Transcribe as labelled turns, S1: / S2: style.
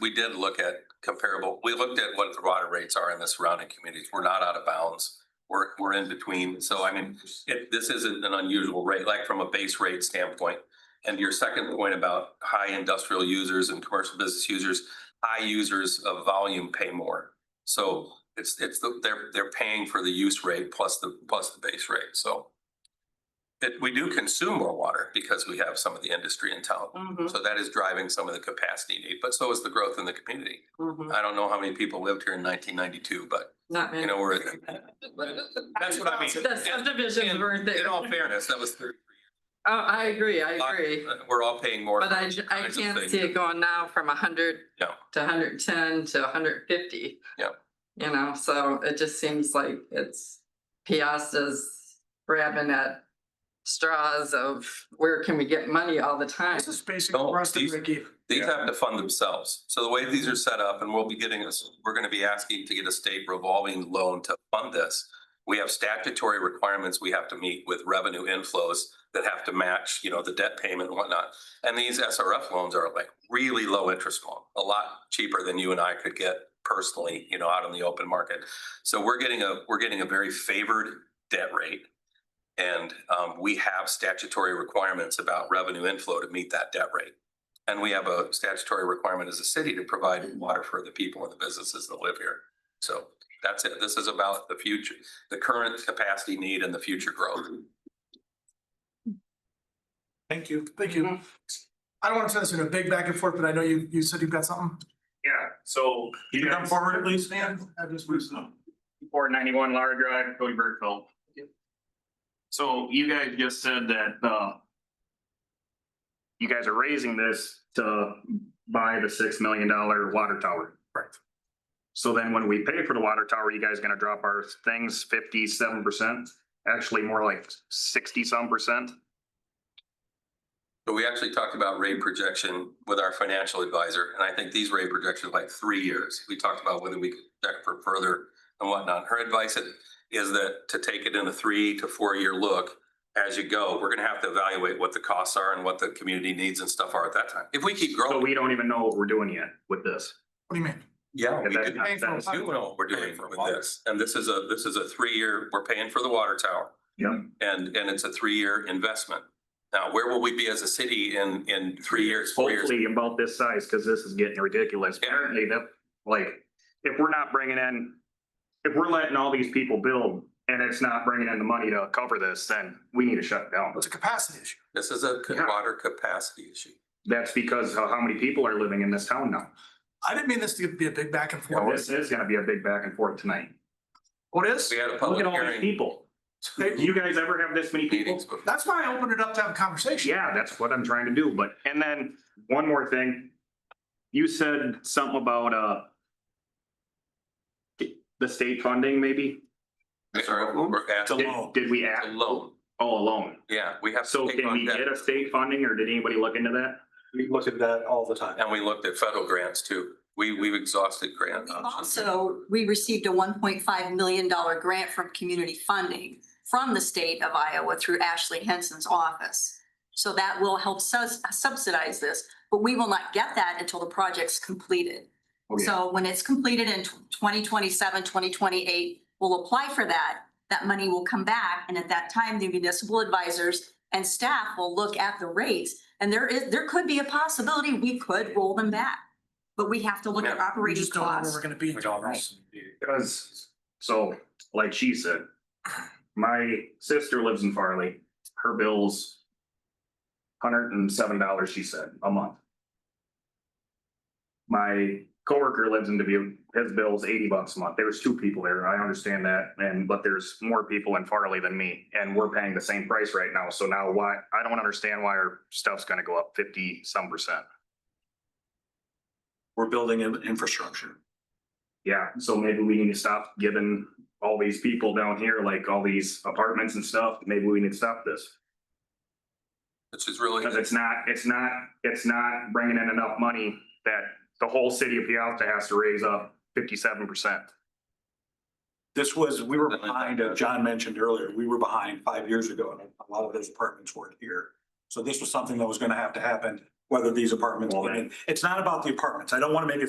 S1: We did look at comparable, we looked at what the water rates are in the surrounding communities. We're not out of bounds. We're, we're in between. So I mean, it, this isn't an unusual rate, like from a base rate standpoint. And your second point about high industrial users and commercial business users, high users of volume pay more. So it's, it's, the- they're, they're paying for the use rate plus the, plus the base rate. So it, we do consume more water because we have some of the industry in town.
S2: Mhm,
S1: So that is driving some of the capacity need, but so is the growth in the community.
S2: mhm.
S1: I don't know how many people lived here in nineteen ninety-two, but
S2: Not
S1: you
S2: many.
S1: know, we're, that's what I mean.
S2: The subdivisions
S1: And-
S2: weren't there.
S1: In all
S2: Oh,
S1: fairness, that was thirty.
S2: I agree, I agree.
S1: We're all paying more.
S2: But
S1: for
S2: I,
S1: those
S2: I
S1: kinds of
S2: can't
S1: things.
S2: see it going now from hundred
S1: No.
S2: to hundred and ten to hundred and fifty.
S1: Yeah.
S2: You know, so it just seems like it's Piasta's grabbing at straws of where can we get money all the time?
S3: This is basic
S1: No,
S3: for us to
S1: these-
S3: break even.
S1: These have to fund themselves. So the way these are set up, and we'll be getting us, we're gonna be asking to get a state revolving loan to fund this. We have statutory requirements we have to meet with revenue inflows that have to match, you know, the debt payment and whatnot. And these SRF loans are like really low interest loan, a lot cheaper than you and I could get personally, you know, out on the open market. So we're getting a, we're getting a very favored debt rate. And um, we have statutory requirements about revenue inflow to meet that debt rate. And we have a statutory requirement as a city to provide water for the people and the businesses that live here. So that's it. This is about the future, the current capacity need and the future growth.
S3: Thank you. Thank you.
S2: Mhm.
S3: I don't want to turn this into a big back and forth, but I know you, you said you've got something.
S4: Yeah, so.
S5: Can you come forward, please,
S3: Yeah,
S5: Dan?
S3: I just,
S4: Four ninety-one Lara Drive, Cody Burkeville. So you guys just said that, uh. You guys are raising this to buy the six million dollar water tower. Right. So then when we pay for the water tower, you guys gonna drop our things fifty-seven percent? Actually, more like sixty-some percent?
S1: But we actually talked about rate projection with our financial advisor, and I think these rate projections are like three years. We talked about whether we could project for further and whatnot. Her advice is- is that to take it in a three to four year look as you go. We're gonna have to evaluate what the costs are and what the community needs and stuff are at that time. If we keep
S4: So
S1: growing,
S4: we don't even know what we're doing yet with this.
S3: what do you mean?
S1: yeah, we
S4: Okay,
S1: do
S4: that-
S1: we
S4: that's-
S1: do know what we're doing
S5: Paying for
S1: with
S5: water.
S1: this. And this is a, this is a three year, we're paying for the water tower.
S4: Yeah.
S1: And, and it's a three year investment. Now, where will we be as a city in, in three years, four years?
S4: hopefully about this size, because this is getting ridiculous.
S1: Yeah.
S4: Apparently that, like, if we're not bringing in, if we're letting all these people build and it's not bringing in the money to cover this, then we need to shut down.
S3: It's a capacity issue.
S1: This is a ca-
S4: Yeah.
S1: water capacity issue.
S4: That's because of how many people are living in this town now.
S3: I didn't mean this to be a big back and
S4: So
S3: forth.
S4: This is gonna be a big back and forth tonight.
S3: What is?
S1: We had a
S4: Look
S1: public
S4: at all these
S1: hearing
S4: people. Do
S3: They-
S4: you guys ever have this many people?
S1: meetings before.
S3: That's why I opened it up to have a conversation.
S4: Yeah, that's what I'm trying to do, but, and then one more thing. You said something about, uh, the state funding maybe?
S1: We're asking
S4: Did, did we
S1: a
S4: act,
S1: loan.
S4: oh, a loan?
S1: Yeah, we have. to
S4: So
S1: take
S4: can
S1: on
S4: we
S1: debt.
S4: get a state funding or did anybody look into that?
S5: We look at that all the time.
S1: And we looked at federal grants too. We, we've exhausted grant
S6: We
S1: options.
S6: Also, we received a one point five million dollar grant from community funding from the state of Iowa through Ashley Henson's office. So that will help sus- subsidize this, but we will not get that until the project's completed.
S4: Oh, yeah.
S6: So when it's completed in 2027, 2028, we'll apply for that. That money will come back and at that time, the municipal advisors and staff will look at the rates. And there is, there could be a possibility we could roll them back, but we have to look
S1: Yeah,
S6: at
S3: We
S6: operating
S3: just don't know where
S6: costs.
S3: we're gonna be.
S4: Because, so, like she said, my sister lives in Farley, her bills hundred and seven dollars, she said, a month. My coworker lives in Dubuque, his bill's eighty bucks a month, there's two people there, I understand that, and, but there's more people in Farley than me, and we're paying the same price right now, so now why, I don't understand why our stuff's gonna go up fifty some percent.
S5: We're building in infrastructure.
S4: Yeah, so maybe we need to stop giving all these people down here, like all these apartments and stuff, maybe we need to stop this.
S1: Which is really,
S4: Because it's not, it's not, it's not bringing in enough money that the whole city of Pialta has to raise up fifty-seven percent.
S5: This was, we were behind, uh, John mentioned earlier, we were behind five years ago and a lot of those apartments weren't here. So this was something that was gonna have to happen, whether these apartments,
S4: Well,
S5: came in. it's not about the apartments. I don't want to make it